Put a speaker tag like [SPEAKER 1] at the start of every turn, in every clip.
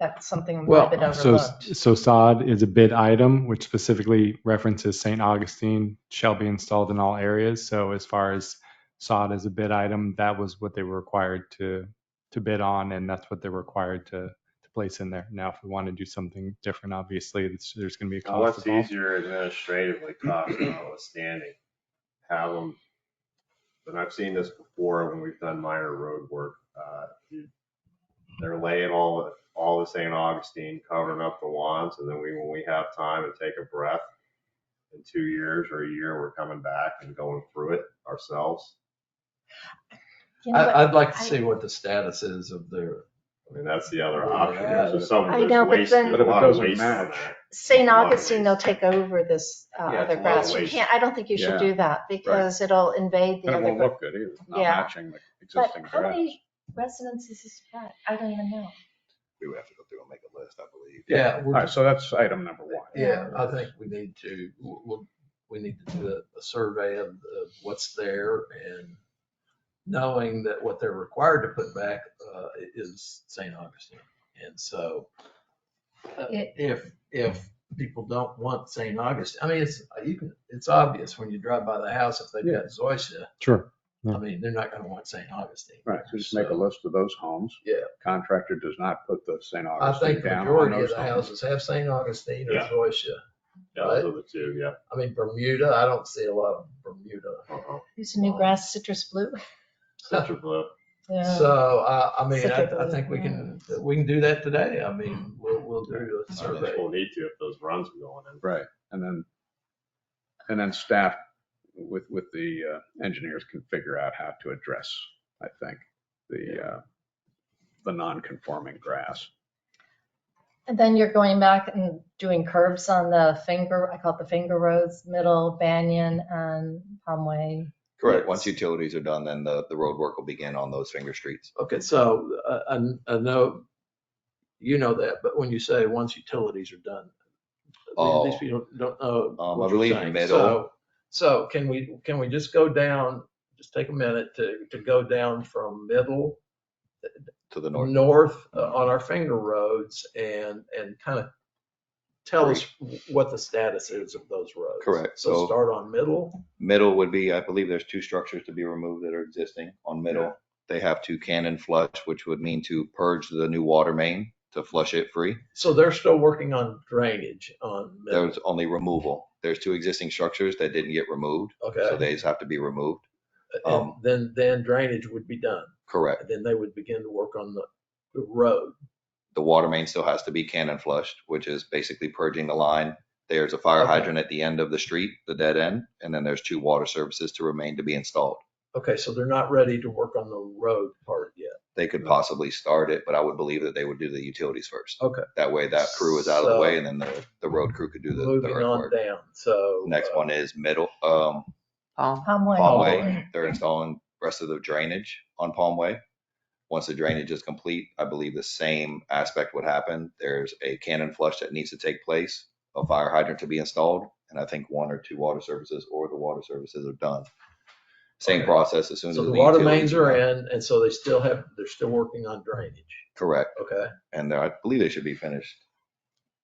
[SPEAKER 1] That's something we've been
[SPEAKER 2] Well, so,
[SPEAKER 1] overlooked.
[SPEAKER 2] so sod is a bid item, which specifically references St. Augustine shall be installed in all areas. So as far as sod as a bid item, that was what they were required to, to bid on, and that's what they're required to, to place in there. Now, if we want to do something different, obviously, it's- there's going to be a
[SPEAKER 3] Now,
[SPEAKER 2] cost
[SPEAKER 3] What's
[SPEAKER 2] involved.
[SPEAKER 3] Oh, easier administratively cost notwithstanding? Have them, and I've seen this before when we've done minor road work. uh, you- They're laying all, all the St. Augustine, covering up the lawns, and then we, when we have time and take a breath, in two years or a year, we're coming back and going through it ourselves.
[SPEAKER 1] You know what?
[SPEAKER 4] I, I'd like to
[SPEAKER 1] I-
[SPEAKER 4] see what the status is of their,
[SPEAKER 3] I mean, that's the other option. So
[SPEAKER 1] I
[SPEAKER 3] someone
[SPEAKER 1] know,
[SPEAKER 3] just
[SPEAKER 1] but
[SPEAKER 3] wasting
[SPEAKER 1] then-
[SPEAKER 3] a
[SPEAKER 5] But if it
[SPEAKER 3] lot of
[SPEAKER 5] doesn't
[SPEAKER 3] waste. on
[SPEAKER 5] match-
[SPEAKER 3] that.
[SPEAKER 1] St.
[SPEAKER 3] Lot of
[SPEAKER 1] Augustine, they'll
[SPEAKER 3] waste.
[SPEAKER 1] take over this uh,
[SPEAKER 3] Yeah, it's
[SPEAKER 1] other
[SPEAKER 3] a lot of
[SPEAKER 1] grass. You
[SPEAKER 3] waste.
[SPEAKER 1] can't, I don't think you should
[SPEAKER 5] Yeah.
[SPEAKER 1] do that because it'll invade the
[SPEAKER 5] But it
[SPEAKER 1] other.
[SPEAKER 5] won't
[SPEAKER 1] gra-
[SPEAKER 5] look good either, not
[SPEAKER 1] Yeah.
[SPEAKER 5] matching the
[SPEAKER 1] But
[SPEAKER 5] existing
[SPEAKER 1] how
[SPEAKER 5] grass.
[SPEAKER 1] many residents is this at? I don't even know.
[SPEAKER 6] We would have to go through and make a list, I believe.
[SPEAKER 4] yeah,
[SPEAKER 5] All
[SPEAKER 4] we're
[SPEAKER 5] right, so that's item number one.
[SPEAKER 4] Yeah, I think we need to, we'll, we need to do a, a survey of, of what's there and knowing that what they're required to put back, uh, i- is St. Augustine. And so uh,
[SPEAKER 1] It-
[SPEAKER 4] if, if people don't want St. Augustine, I mean, it's, you can, it's obvious when you drive by the house, if they've got Zoysia,
[SPEAKER 2] Sure.
[SPEAKER 4] I mean, they're not gonna want St. Augustine.
[SPEAKER 5] Right, so just make a list of those homes.
[SPEAKER 4] Yeah.
[SPEAKER 5] Contractor does not put the St.
[SPEAKER 4] I
[SPEAKER 5] Augustine
[SPEAKER 4] think the
[SPEAKER 5] down on
[SPEAKER 4] majority of
[SPEAKER 5] those
[SPEAKER 4] the
[SPEAKER 5] homes.
[SPEAKER 4] houses have St. Augustine or
[SPEAKER 3] Yeah.
[SPEAKER 4] Zoysia.
[SPEAKER 3] Yeah, those are the two, yeah.
[SPEAKER 4] I mean, Bermuda, I don't see a lot of Bermuda.
[SPEAKER 3] Uh-oh.
[SPEAKER 1] Who's a new grass citrus blue?
[SPEAKER 3] Such a blip.
[SPEAKER 1] Yeah.
[SPEAKER 4] So, I, I mean,
[SPEAKER 1] Such
[SPEAKER 4] I,
[SPEAKER 1] a
[SPEAKER 4] I think we can, we can do that today. I mean, we'll, we'll do a
[SPEAKER 3] I don't think
[SPEAKER 4] survey.
[SPEAKER 3] we'll need to if those runs are going in.
[SPEAKER 5] Right, and then, and then staff with, with the uh, engineers can figure out how to address, I think, the, uh, the non-conforming grass.
[SPEAKER 1] And then you're going back and doing curbs on the finger, I call it the finger roads, Middle, Banyan, and Palmway.
[SPEAKER 6] Correct. Once utilities are done, then the, the road work will begin on those finger streets.
[SPEAKER 4] Okay, so, uh, I, I know, you know that, but when you say once utilities are done,
[SPEAKER 6] Oh.
[SPEAKER 4] these people don't know.
[SPEAKER 6] Um, I
[SPEAKER 4] what you're
[SPEAKER 6] believe
[SPEAKER 4] saying.
[SPEAKER 6] middle.
[SPEAKER 4] So- So can we, can we just go down, just take a minute to, to go down from middle
[SPEAKER 6] To the north,
[SPEAKER 4] north uh, on our finger roads and, and kind of tell us what the status is of those roads.
[SPEAKER 6] Correct,
[SPEAKER 4] So
[SPEAKER 6] so-
[SPEAKER 4] start on middle.
[SPEAKER 6] middle would be, I believe there's two structures to be removed that are existing on middle. They have to cannon flush, which would mean to purge the new water main to flush it free.
[SPEAKER 4] So they're still working on drainage on middle.
[SPEAKER 6] There's only removal. There's two existing structures that didn't get removed, so
[SPEAKER 4] Okay.
[SPEAKER 6] these have to be removed.
[SPEAKER 4] And
[SPEAKER 6] um,
[SPEAKER 4] then, then drainage would be done.
[SPEAKER 6] Correct.
[SPEAKER 4] And then they would begin to work on the, the road.
[SPEAKER 6] The water main still has to be cannon flushed, which is basically purging the line. There's a fire
[SPEAKER 4] Okay.
[SPEAKER 6] hydrant at the end of the street, the dead end, and then there's two water services to remain to be installed.
[SPEAKER 4] Okay, so they're not ready to work on the road part yet.
[SPEAKER 6] They
[SPEAKER 4] Mm-hmm.
[SPEAKER 6] could possibly start it, but I would believe that they would do the utilities first.
[SPEAKER 4] Okay.
[SPEAKER 6] That way that crew is out of the way
[SPEAKER 4] So-
[SPEAKER 6] and then the, the road crew could do the- the
[SPEAKER 4] Moving on
[SPEAKER 6] earthwork.
[SPEAKER 4] down, so.
[SPEAKER 6] Next
[SPEAKER 4] uh,
[SPEAKER 6] one is middle, um,
[SPEAKER 1] Palmway.
[SPEAKER 6] Palm
[SPEAKER 4] Way.
[SPEAKER 6] Way. They're installing rest of the drainage on Palm Way. Once the drainage is complete, I believe the same aspect would happen. There's a cannon flush that needs to take place, a fire hydrant to be installed, and I think one or two water services or the water services are done. Same
[SPEAKER 4] Okay.
[SPEAKER 6] process as soon as.
[SPEAKER 4] So the water
[SPEAKER 6] utilities
[SPEAKER 4] mains are
[SPEAKER 6] done.
[SPEAKER 4] in, and so they still have, they're still working on drainage.
[SPEAKER 6] Correct,
[SPEAKER 4] Okay,
[SPEAKER 6] and they're- I believe they should be finished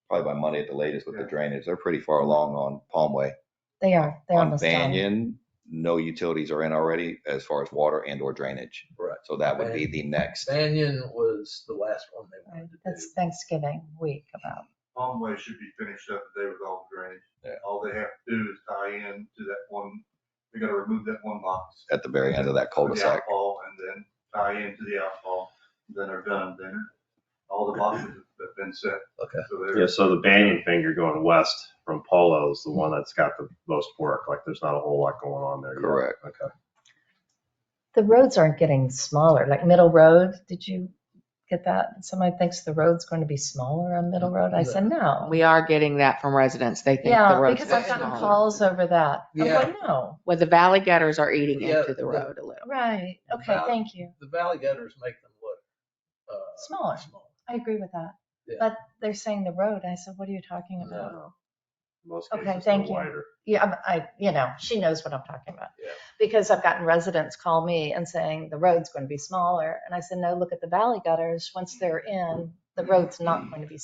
[SPEAKER 6] probably by Monday at the latest with the drainage. They're pretty far along on Palm Way.
[SPEAKER 1] They are, they're
[SPEAKER 6] On
[SPEAKER 1] almost done.
[SPEAKER 6] Banyan, no utilities are in already as far as water and or drainage.
[SPEAKER 4] right.
[SPEAKER 6] So that would be the next.
[SPEAKER 4] Banyan was the last one they wanted to do.
[SPEAKER 1] That's Thanksgiving week about.
[SPEAKER 7] Palmway should be finished up today with all the drainage.
[SPEAKER 6] Yeah.
[SPEAKER 7] All they have to do is tie in to that one, they gotta remove that one box.
[SPEAKER 6] at the very end of that
[SPEAKER 7] for The
[SPEAKER 6] cul-de-sac.
[SPEAKER 7] outfall and then tie into the outfall, then they're done, then all the boxes have been set.
[SPEAKER 4] Okay.
[SPEAKER 7] So they're-
[SPEAKER 3] Yeah, so the Banyan finger going west from Polo is the one that's got the most work. Like, there's not a whole lot going on there. yet.
[SPEAKER 6] Correct.
[SPEAKER 3] Okay.
[SPEAKER 1] The roads aren't getting smaller, like Middle Road, did you get that? Somebody thinks the road's going to be smaller on Middle Road. I said, no.
[SPEAKER 8] We are getting that from residents. They think the
[SPEAKER 1] Yeah,
[SPEAKER 8] road's
[SPEAKER 1] because I've
[SPEAKER 8] getting
[SPEAKER 1] gotten
[SPEAKER 4] smaller.
[SPEAKER 1] calls over that. I'm
[SPEAKER 4] Yeah.
[SPEAKER 1] like, no,
[SPEAKER 8] Well, the valley gutters are eating
[SPEAKER 4] Yeah,
[SPEAKER 8] into the
[SPEAKER 4] the-
[SPEAKER 8] road a little.
[SPEAKER 1] right, okay,
[SPEAKER 4] About-
[SPEAKER 1] thank you.
[SPEAKER 4] The valley gutters make them look. uh,
[SPEAKER 1] Smaller. I agree with that.
[SPEAKER 4] Yeah.
[SPEAKER 1] But they're saying the road. I said, what are you talking
[SPEAKER 4] No.
[SPEAKER 1] about?
[SPEAKER 3] Most
[SPEAKER 1] Okay,
[SPEAKER 3] cases they're
[SPEAKER 1] thank you.
[SPEAKER 3] wider.
[SPEAKER 1] Yeah, I'm- I, you know, she knows what I'm talking about.
[SPEAKER 4] Yeah.
[SPEAKER 1] Because I've gotten residents call me and saying the road's going to be smaller. And I said, no, look at the valley gutters. Once they're in,
[SPEAKER 4] Mm.
[SPEAKER 1] the road's not going to be